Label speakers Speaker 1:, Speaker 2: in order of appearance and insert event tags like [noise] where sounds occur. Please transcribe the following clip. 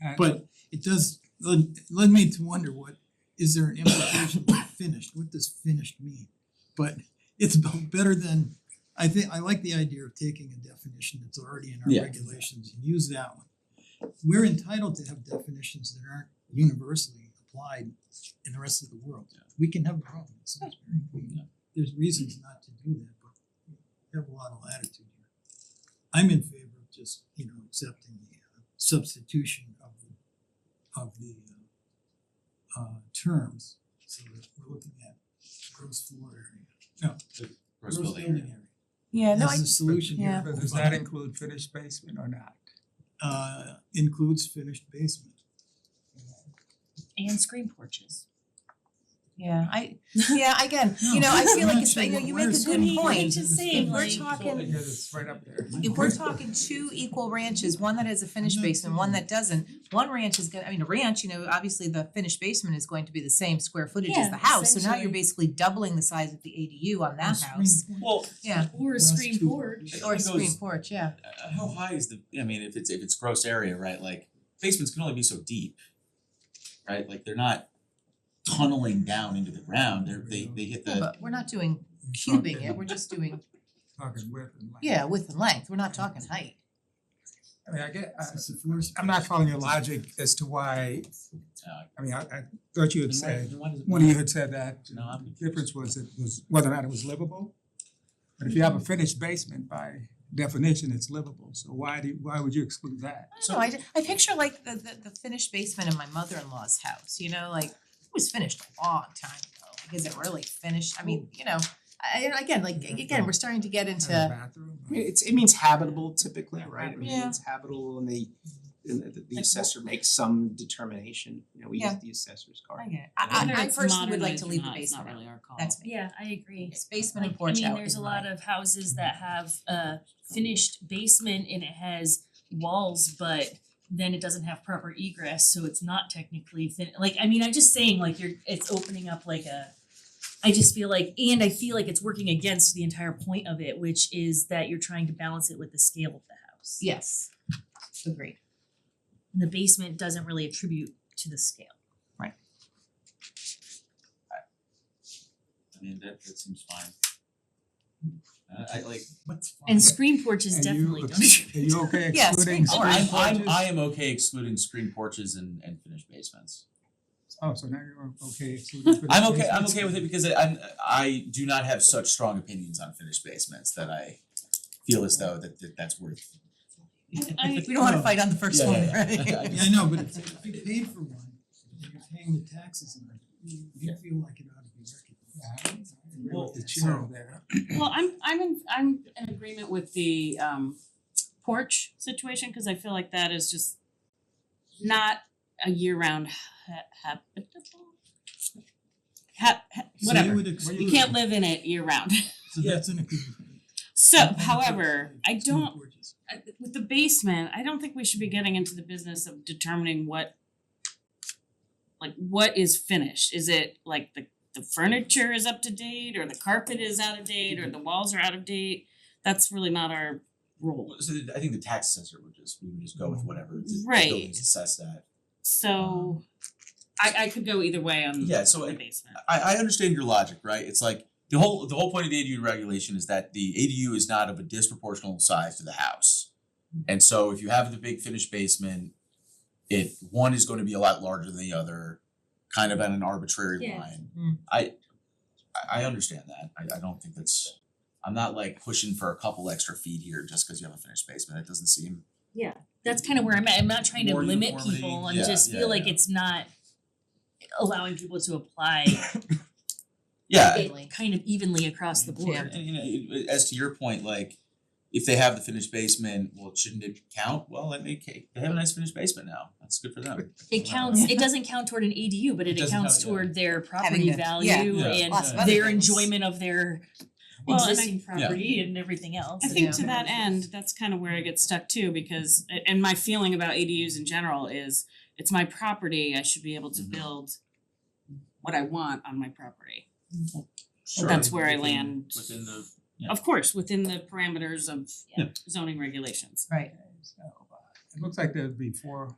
Speaker 1: And-
Speaker 2: But it does led led me to wonder what is there an implication by finished, what does finished mean? But it's b- better than, I think, I like the idea of taking a definition that's already in
Speaker 3: Yeah.
Speaker 2: our regulations and use that one. We're entitled to have definitions that aren't universally applied in the rest of the world.
Speaker 3: Yeah.
Speaker 2: We can have our own, it sounds very clean.
Speaker 3: Yeah.
Speaker 2: There's reasons not to do that, but we have a lot of latitude here. I'm in favor of just, you know, accepting the uh, substitution of the of the uh, uh terms. So that we're looking at gross floor area, gross building area
Speaker 4: Yeah, no, I,
Speaker 2: as the solution here.
Speaker 4: Yeah.
Speaker 1: But does that include finished basement or not?
Speaker 2: Uh includes finished basement.
Speaker 5: and screen porches.
Speaker 4: yeah,
Speaker 5: [laughs]
Speaker 4: I, yeah, again, you know, I feel like it's, you know, you make a good point.
Speaker 5: just
Speaker 4: If we're
Speaker 5: like-
Speaker 4: talking,
Speaker 1: Because it's right up there.
Speaker 4: if we're talking two equal ranches, one that has a
Speaker 5: Mm-hmm.
Speaker 4: finished basement, one that doesn't, one ranch is gonna, I mean, a ranch, you know, obviously the finished basement is going to be the same square footage as
Speaker 5: Yeah,
Speaker 4: the house, so now you're
Speaker 5: essentially.
Speaker 4: basically doubling the size of the ADU on that
Speaker 2: Screen
Speaker 4: house.
Speaker 2: porch.
Speaker 3: Well,
Speaker 4: Yeah,
Speaker 5: Or a
Speaker 2: Last
Speaker 5: screen
Speaker 2: two.
Speaker 5: porch.
Speaker 3: It
Speaker 4: or a
Speaker 3: goes-
Speaker 4: screen porch, yeah.
Speaker 3: uh, how high is the, I mean, if it's, if it's gross area, right, like basements can only be so deep. Right, like they're not tunneling down into the ground, they're, they, they hit
Speaker 4: Yeah,
Speaker 3: the,
Speaker 4: But we're not doing
Speaker 1: You're
Speaker 4: cubing it,
Speaker 1: talking-
Speaker 4: we're just doing,
Speaker 1: Talking width and length.
Speaker 4: yeah, width and length, we're not talking height.
Speaker 1: I mean, I get, I
Speaker 2: It's the floor space.
Speaker 1: I'm not following your logic as to why,
Speaker 3: uh,
Speaker 1: I mean, I I thought you had
Speaker 3: then why-
Speaker 1: said,
Speaker 3: then why does it
Speaker 1: one of you
Speaker 3: matter?
Speaker 1: had said that
Speaker 3: No, I'm
Speaker 1: the
Speaker 3: confused.
Speaker 1: difference was it was whether or not it was livable. But if you have a finished basement, by definition, it's livable, so why do, why would you exclude that?
Speaker 4: I don't know, I ju- I picture like the the the finished basement in my mother-in-law's house, you know, like it was finished a long time ago. Like is it really finished? I mean, you know, I and again, like
Speaker 1: Yeah,
Speaker 4: again, we're starting to get
Speaker 1: And a
Speaker 4: into
Speaker 1: bathroom.
Speaker 6: I mean, it's, it means habitable typically, right? I mean,
Speaker 4: Yeah.
Speaker 6: it's habitable and they, and the- the
Speaker 4: Like,
Speaker 6: assessor makes some determination, you know, we use
Speaker 4: Yeah.
Speaker 6: the assessor's
Speaker 4: I
Speaker 6: card.
Speaker 4: get it.
Speaker 3: I
Speaker 4: I
Speaker 3: wonder
Speaker 4: I I personally would like to leave the basement out.
Speaker 7: Modernized or not, it's not really our call.
Speaker 4: That's me.
Speaker 5: Yeah, I agree.
Speaker 4: It's basement and
Speaker 5: Like,
Speaker 4: porch
Speaker 5: I
Speaker 4: out
Speaker 5: mean, there's
Speaker 4: is
Speaker 5: a
Speaker 4: my-
Speaker 5: lot of houses that have a finished basement and it has walls, but then it doesn't have proper egress, so it's not technically fin- like, I mean, I'm just saying, like, you're, it's opening up like a I just feel like, and I feel like it's working against the entire point of it, which is that you're trying to balance it with the scale of the house.
Speaker 4: Yes. Agreed.
Speaker 5: And the basement doesn't really attribute to the scale.
Speaker 3: I mean, that, that seems fine. Uh, I like,
Speaker 2: What's fine?
Speaker 5: And screen
Speaker 1: And
Speaker 5: porches
Speaker 1: you
Speaker 4: [laughs]
Speaker 5: definitely don't
Speaker 1: ex- Are you okay
Speaker 4: Yeah,
Speaker 1: excluding
Speaker 4: screen
Speaker 3: oh,
Speaker 4: porch.
Speaker 1: screen
Speaker 3: I'm, I'm,
Speaker 1: porches?
Speaker 3: I am okay excluding screen porches and, and finished basements.
Speaker 1: Oh, so now you're okay excluding finished
Speaker 3: I'm okay, I'm
Speaker 1: basements?
Speaker 3: okay with it because I, I'm, I do not have such strong opinions on finished basements that I feel as though that, that that's worth.
Speaker 5: I-
Speaker 4: We don't wanna
Speaker 2: No.
Speaker 4: fight on the first
Speaker 3: Yeah,
Speaker 4: one,
Speaker 3: yeah,
Speaker 4: right?
Speaker 3: yeah. I
Speaker 2: Oh. Yeah, I know, but if if you paid for one, and you're paying the taxes on it, you you feel like it ought to be recognized.
Speaker 1: I agree
Speaker 3: Well,
Speaker 1: with the chair there.
Speaker 7: Well, I'm I'm in I'm in agreement with the um porch situation, cause I feel like that is just not a year-round ha- habitable. Ha-
Speaker 2: So
Speaker 7: ha-
Speaker 2: you
Speaker 7: whatever,
Speaker 2: would ex-
Speaker 7: you can't live in it year-round, [laughs]
Speaker 2: So that's an agreement.
Speaker 7: so
Speaker 2: [laughs]
Speaker 7: however, I
Speaker 2: Screen
Speaker 7: don't
Speaker 2: porches.
Speaker 7: I- with the basement, I don't think we should be getting into the business of determining what like what is finished. Is it like the the furniture is up to date or the carpet is out of date or the walls are out of date? That's really not our role.
Speaker 3: So the- I think the tax assessor would just, we would just go with whatever the- the
Speaker 7: Right.
Speaker 3: building's assessed at.
Speaker 7: So I I could go either way on
Speaker 3: Yeah, so
Speaker 7: the
Speaker 3: it-
Speaker 7: basement.
Speaker 3: I I understand your logic, right? It's like the whole the whole point of the ADU regulation is that the ADU is not of a disproportional size to the house. And so if you have the big finished basement, if one is gonna be a lot larger than the other, kind of on an arbitrary
Speaker 5: Yeah.
Speaker 3: line.
Speaker 4: Mm.
Speaker 3: I I I understand that. I I don't think that's I'm not like pushing for a couple extra feet here just because you have a finished basement. That doesn't seem
Speaker 5: that's kind of where I'm at. I'm not trying to
Speaker 3: More
Speaker 5: limit
Speaker 3: uniformity,
Speaker 5: people and
Speaker 3: yeah,
Speaker 5: just
Speaker 3: yeah,
Speaker 5: feel like
Speaker 3: yeah.
Speaker 5: it's not allowing people to apply
Speaker 3: Yeah,
Speaker 5: it kind of evenly across the
Speaker 4: Yeah.
Speaker 5: board.
Speaker 3: And you know, it- it- as to your point, like if they have the finished basement, well, shouldn't it count? Well, that may ca- they have a nice finished basement now. That's good for them.
Speaker 4: [laughs]
Speaker 5: It counts, it doesn't count toward an ADU, but
Speaker 3: It
Speaker 5: it
Speaker 3: doesn't
Speaker 5: accounts
Speaker 3: count, yeah.
Speaker 5: toward their property
Speaker 4: the- yeah.
Speaker 5: value
Speaker 3: Yeah.
Speaker 5: and
Speaker 4: Lots
Speaker 3: of
Speaker 4: other
Speaker 5: their
Speaker 4: things.
Speaker 5: enjoyment of their
Speaker 7: Well, and I-
Speaker 5: existing property and everything else.
Speaker 7: I
Speaker 5: and-
Speaker 7: think to that end, that's kind of where I get stuck too, because a- and my feeling about ADUs in general is it's my property, I should be able to
Speaker 3: Mhm.
Speaker 7: build what I want on my property.
Speaker 3: Sure.
Speaker 7: That's where I
Speaker 3: Within-
Speaker 7: land.
Speaker 3: Within the
Speaker 7: Of course, within the parameters of
Speaker 3: Yeah.
Speaker 7: zoning regulations.
Speaker 4: Right.
Speaker 1: It looks like there'd be four